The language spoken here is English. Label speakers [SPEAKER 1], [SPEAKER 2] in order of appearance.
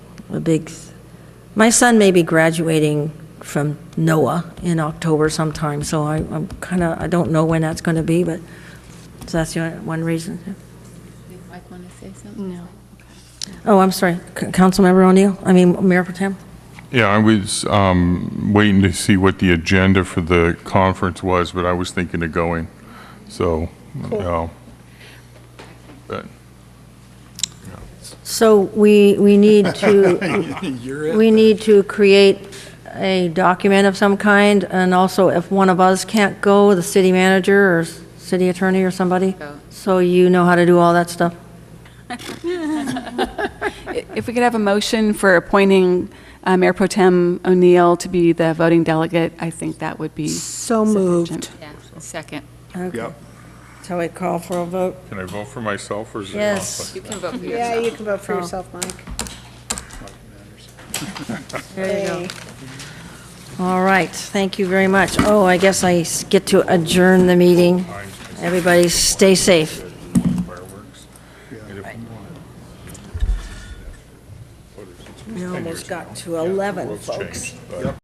[SPEAKER 1] a big, my son may be graduating from NOAA in October sometime, so I, I'm kind of, I don't know when that's going to be, but, so that's the only- one reason.
[SPEAKER 2] Did Mike want to say something? No.
[SPEAKER 1] Oh, I'm sorry, C- Councilmember O'Neill, I mean, Mayor Protem?
[SPEAKER 3] Yeah, I was um, waiting to see what the agenda for the conference was, but I was thinking of going, so, yeah. But,
[SPEAKER 1] So we, we need to, we need to create a document of some kind, and also if one of us can't go, the city manager or s- city attorney or somebody,
[SPEAKER 2] Go.
[SPEAKER 1] so you know how to do all that stuff.
[SPEAKER 4] If we could have a motion for appointing uh, Mayor Pro Tem O'Neill to be the voting delegate, I think that would be.
[SPEAKER 5] So
[SPEAKER 4] sufficient.
[SPEAKER 5] moved.
[SPEAKER 2] Yeah, second.
[SPEAKER 1] Okay. Shall we call for a vote?
[SPEAKER 3] Can I vote for myself, or is it?
[SPEAKER 1] Yes.
[SPEAKER 2] You can vote for
[SPEAKER 5] Yeah,
[SPEAKER 2] yourself.
[SPEAKER 5] you can vote for yourself, Mike.
[SPEAKER 1] There you go. All right, thank you very much. Oh, I guess I s- get to adjourn the meeting. Everybody, stay safe.
[SPEAKER 3] Fireworks.
[SPEAKER 1] We almost got to 11,
[SPEAKER 3] World's changed, but-